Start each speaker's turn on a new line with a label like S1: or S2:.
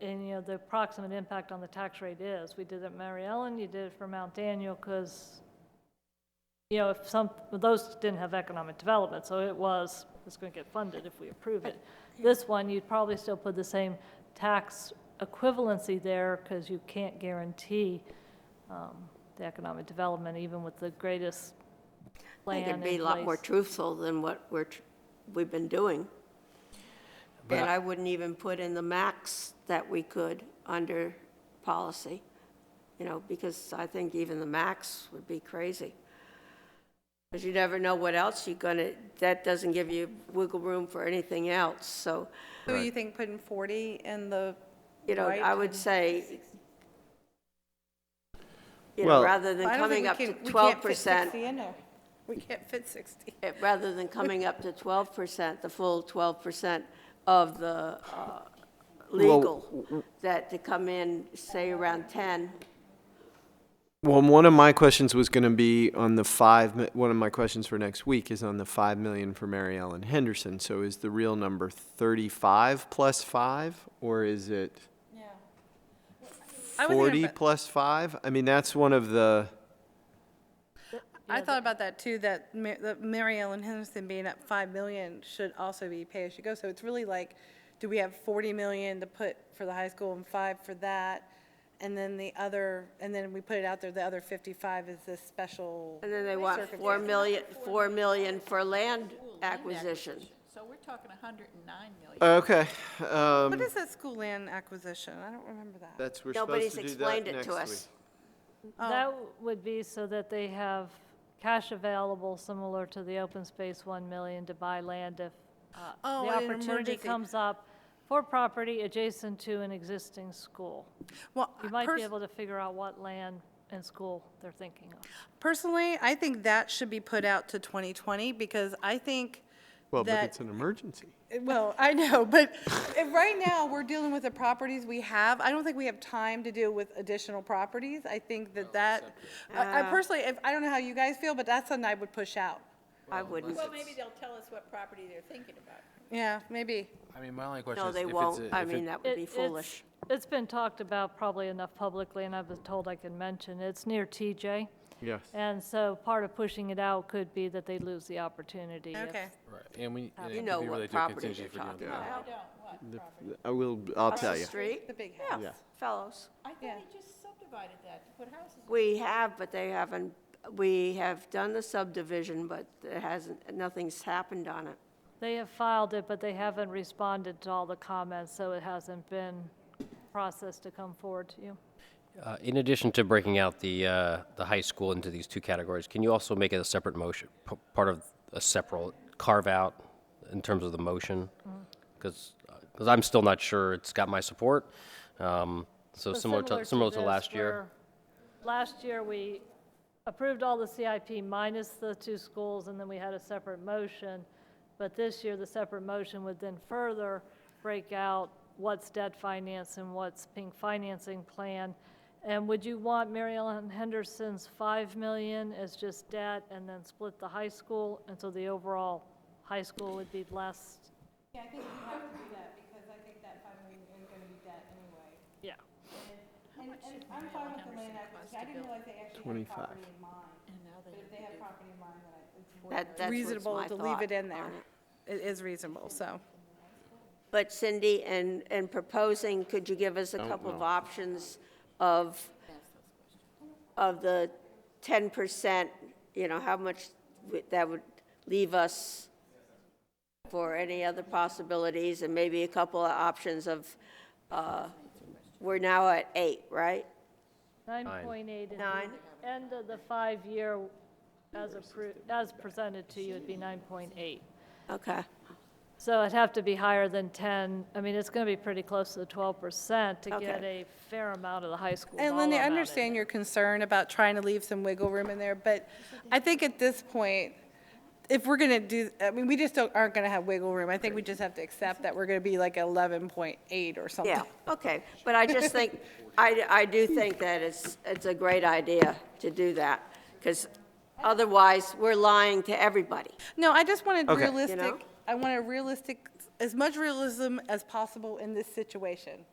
S1: and, you know, the approximate impact on the tax rate is. We did it at Mary Ellen, you did it for Mount Daniel, because, you know, if some, well, those didn't have economic development, so it was, it's going to get funded if we approve it. This one, you'd probably still put the same tax equivalency there, because you can't guarantee um, the economic development, even with the greatest
S2: I
S1: plan in
S2: think
S1: place.
S2: it'd be a lot more truthful than what we're, tr- we've been doing.
S3: But
S2: And
S3: I-
S2: I wouldn't even put in the max that we could under policy, you know, because I think even the max would be crazy. Because you never know what else you're gonna, that doesn't give you wiggle room for anything else, so,
S4: So you think putting 40 in the
S2: you know,
S4: right
S2: I would
S4: and-
S2: say, you know,
S3: Well-
S2: rather than
S4: I don't
S2: coming
S4: think
S2: up
S4: we
S2: to
S4: can- we
S2: twelve
S4: can't fit
S2: percent,
S4: 60 in there. We can't fit 60.
S2: it- rather than coming up to 12%, the full 12% of the uh, legal, that to come in, say, around 10,
S3: Well, one of my questions was going to be on the five. mi- One of my questions for next week is on the five million for Mary Ellen Henderson. So is the real number thirty-five plus five, or is it
S4: I would think
S3: forty
S4: about-
S3: plus five? I mean, that's one of the.
S4: I thought about that too, that Ma- that Mary Ellen Henderson being at 5 million should also be pay-as-you-go. So it's really like, do we have 40 million to put for the high school and 5 for that? And then the other, and then we put it out there, the other 55 is this special.
S2: and then they want 4 million, 4 million for land acquisition.
S5: So we're talking 109 million.
S3: Okay, um,
S4: What is that school land acquisition? I don't remember that.
S3: that's we're
S2: Nobody's
S3: supposed to do
S2: explained
S3: that
S2: it to
S3: next
S2: us.
S3: week.
S4: Oh.
S1: That would be so that they have cash available, similar to the open space 1 million to buy land if uh,
S4: Oh,
S1: the
S4: in an
S1: opportunity
S4: emergency.
S1: comes up for property adjacent to an existing school.
S4: Well,
S1: You might
S4: pers-
S1: be able to figure out what land and school they're thinking of.
S4: Personally, I think that should be put out to 2020 because I think
S3: Well, but
S4: that-
S3: it's an emergency.
S4: Well, I know, but if right now, we're dealing with the properties we have. I don't think we have time to deal with additional properties. I think that that, I I personally, if, I don't know how you guys feel, but that's something I would push out.
S2: I wouldn't.
S5: Well, maybe they'll tell us what property they're thinking about.
S4: Yeah, maybe.
S6: I mean, my only question
S2: No,
S6: is if
S2: they
S6: it's.
S2: won't.
S6: a-
S2: I
S6: if it-
S2: mean, that would
S1: It-
S2: be
S1: it's-
S2: foolish.
S1: It's been talked about probably enough publicly, and I've been told I can mention. It's near TJ.
S3: Yes.
S1: And so part of pushing it out could be that they lose the opportunity. if-
S4: Okay.
S6: Right, and we, and
S2: uh, You
S6: it
S2: know
S6: could be
S2: what
S6: related to a
S2: property they're
S6: contingency for doing
S2: talking
S6: that.
S2: about.
S3: I will. I'll tell you.
S2: Street?
S4: The big house.
S2: Yeah, fellows.
S5: I thought they just subdivided that to put houses.
S2: We have, but they haven't, we have done the subdivision, but it hasn't, nothing's happened on it.
S1: They have filed it, but they haven't responded to all the comments, so it hasn't been processed to come forward to you.
S7: Uh, In addition to breaking out the, uh, the high school into these two categories, can you also make it a separate motion, p- part of a separate carve-out in terms of the motion? Because, I'm still not sure it's got my support, um, so
S1: So
S7: similar to, similar to
S1: this,
S7: last year.
S1: where Last year, we approved all the CIP minus the two schools, and then we had a separate motion. But this year, the separate motion would then further break out what's debt finance and what's pink financing plan. And would you want Mary Ellen Henderson's 5 million as just debt and then split the high school? And so the overall high school would be less,
S4: Yeah, I think we have to do that because I think that five million is gonna be debt anyway.
S1: yeah.
S4: And, and I'm fine with the land acquisition. I didn't realize they actually had property in mind. But if they have property in mind, then I- it's more
S2: That- that's what's
S4: reasonable
S2: my
S4: to leave
S2: thought
S4: it in
S2: on
S4: there.
S2: it.
S4: It is reasonable, so.
S2: But Cindy, and, and proposing, could you give us a couple of options of, of the ten percent, you know, how much would- that would leave us for any other possibilities, and maybe a couple of options of, uh, we're now at eight, right?
S1: 9.8 is
S2: Nine.
S1: the end of the five-year as approved, as presented to you would be 9.8.
S2: Okay.
S1: So it'd have to be higher than 10, I mean, it's going to be pretty close to the 12% to get
S2: Okay.
S1: a fair amount of the high school
S4: And
S1: dollar
S4: Linda, I
S1: amount in
S4: understand your concern about trying to leave some wiggle room in there, but I think at this point, if we're gonna do, I mean, we just don't, aren't gonna have wiggle room. I think we just have to accept that we're gonna be like eleven point eight or something.
S2: Yeah, okay, but I just think, I, I do think that it's, it's a great idea to do that, because otherwise, we're lying to everybody.
S4: No, I just wanted
S3: Okay. You
S4: realistic,
S2: know?
S4: I want a realistic, as much realism as possible in this situation.